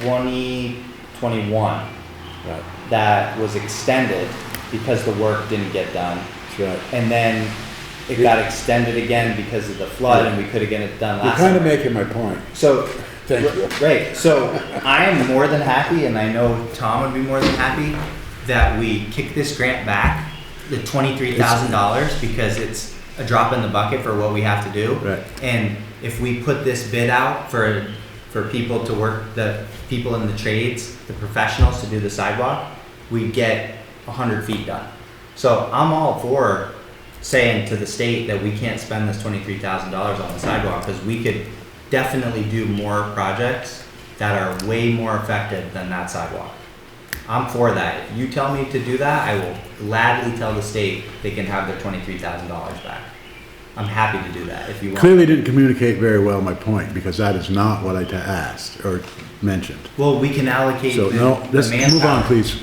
twenty twenty-one Right, that was extended because the work didn't get done. that's right. And then it got extended again because of the flood and we could have get it done You're last kind of summer. making my point. So, Thank you. great, so I am more than happy, and I know Tom would be more than happy, that we kick this grant back, the twenty-three thousand dollars, because it's a drop in the bucket for what we have to do. Right. And if we put this bid out for, for people to work, the people in the trades, the professionals to do the sidewalk, we get a hundred feet done. So I'm all for saying to the state that we can't spend this twenty-three thousand dollars on the sidewalk, because we could definitely do more projects that are way more effective than that sidewalk. I'm for that. If you tell me to do that, I will gladly tell the state they can have their twenty-three thousand dollars back. I'm happy to do that if you want. Clearly didn't communicate very well my point, because that is not what I ta- asked or mentioned. Well, we can allocate So, the no, the let's move on, manpower. please.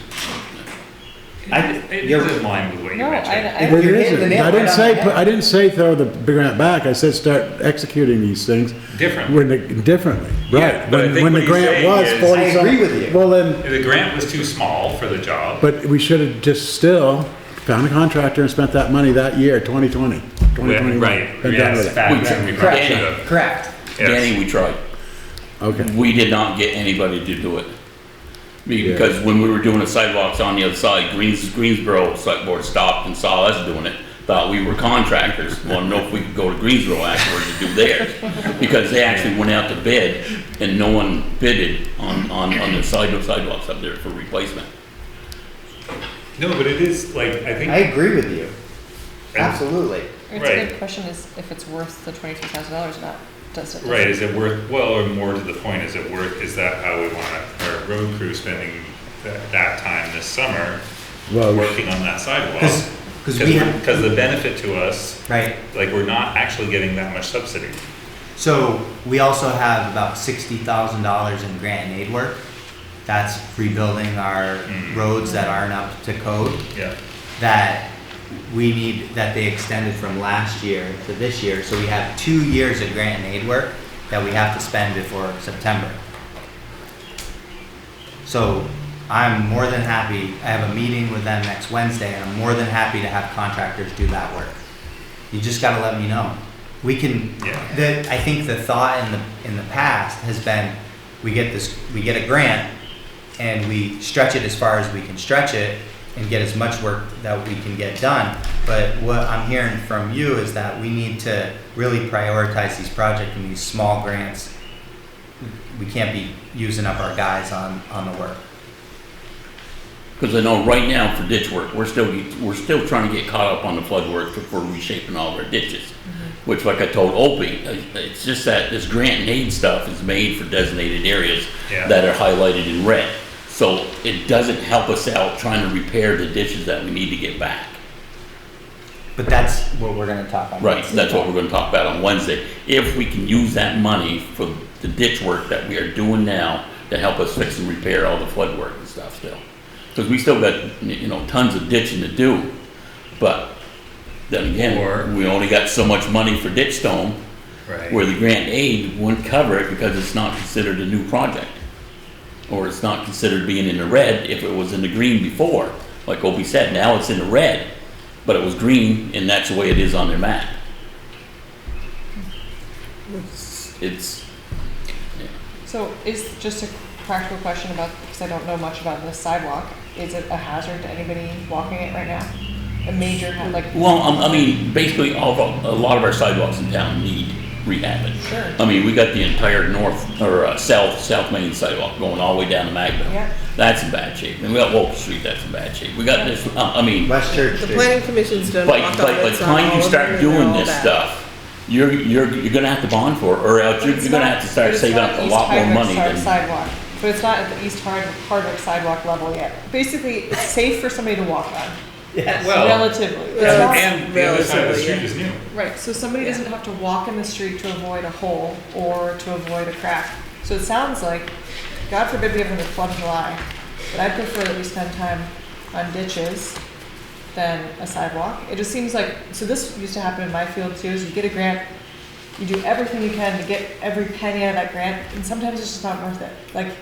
I- It you're- is in line with what you No, I- mentioned. I- You're It hitting the isn't. nail I didn't right on say, the put- head. I didn't say throw the grant back, I said start executing these things. Differently. When, the- differently, Yeah, right. but I When- think when what the he's grant saying was is- forty I some- agree with you. Well, then, The grant was too small for the job. but we should have just still found a contractor and spent that money that year, twenty twenty, twenty Right, twenty-one. And done yes, with it. fact, We- we probably should Correct, have. correct. Yes. Danny, we tried. Okay, We did not get anybody to do it. Because when we were doing the sidewalks on the other side, Greens, Greensboro Select Board stopped and saw us doing it, thought we were contractors, wanted to know if we could go to Greensboro afterwards to do theirs. Because they actually went out to bid and no one bidded on, on, on the side of sidewalks up there for replacement. No, but it is, like, I I think, agree with you. And- Absolutely. It's a Right. good question is if it's worth the twenty-three thousand dollars or not, does it? right, is it worth, well, or more to the point, is it worth, is that how we want our road crew spending that, that time this summer well, working on that sidewalk? 'Cause- 'cause we have- Because the benefit to us, Right. like, we're not actually getting that much subsidy. So we also have about sixty thousand dollars in grant and aid work. That's rebuilding our roads that aren't up to code Yeah. that we need, that they extended from last year to this year. So we have two years of grant and aid work that we have to spend before September. So I'm more than happy, I have a meeting with them next Wednesday and I'm more than happy to have contractors do that work. You just gotta let me know. We can, Yeah. the, I think the thought in the, in the past has been, we get this, we get a grant and we stretch it as far as we can stretch it and get as much work that we can get done. But what I'm hearing from you is that we need to really prioritize these projects and these small grants. We can't be using up our guys on, on the work. Because I know right now for ditch work, we're still, we're still trying to get caught up on the flood work for reshaping all of our ditches. Which like I told Opie, uh, it's just that this grant and aid stuff is made for designated areas Yeah. that are highlighted in red. So it doesn't help us out trying to repair the ditches that we need to get back. But that's what we're gonna talk about. Right, that's what we're gonna talk about on Wednesday. If we can use that money for the ditch work that we are doing now to help us fix and repair all the flood work and stuff still. Because we still got, you know, tons of ditching to do, but then again, we only got so much money for ditch stone, where Right. the grant aid wouldn't cover it because it's not considered a new project. Or it's not considered being in the red if it was in the green before. Like Opie said, now it's in the red, but it was green and that's the way it is on their map. It's- It's, So is, just a practical question about, because I don't know much about this sidewalk, is it a hazard to anybody walking it right now? A major, ha- like, well, um, I mean, basically all, of- a lot of our sidewalks in town need rehabbing. Sure. I mean, we got the entire north, or uh, south, south main sidewalk going all the way down to Magville. Yeah. That's in bad shape. And we got Wolf Street, that's in bad shape. We got this, uh, I mean. West Church The Street. planning commission's done. But, walk but by audits the on time all you of them, start and they're doing all this back. stuff, you're, you're, you're gonna have to bond for it, or else but you're, it's you're gonna not- have to start but it's saving not up a East lot more Hardwick money side- than. Sidewalk, but it's not at the East Hard- Hardwick sidewalk level yet. Basically, it's safe for somebody to walk on, Yes. Well, relatively. It's Yeah. not- and the other side of the Relatively, yeah. street is new. Right, so somebody doesn't have to walk in the street to avoid a hole or to avoid a crack. So it sounds like, God forbid we have another flood in July, but I prefer that we spend time on ditches than a sidewalk. It just seems like, so this used to happen in my field too, is you get a grant, you do everything you can to get every penny out of that grant, and sometimes it's just not worth it. Like,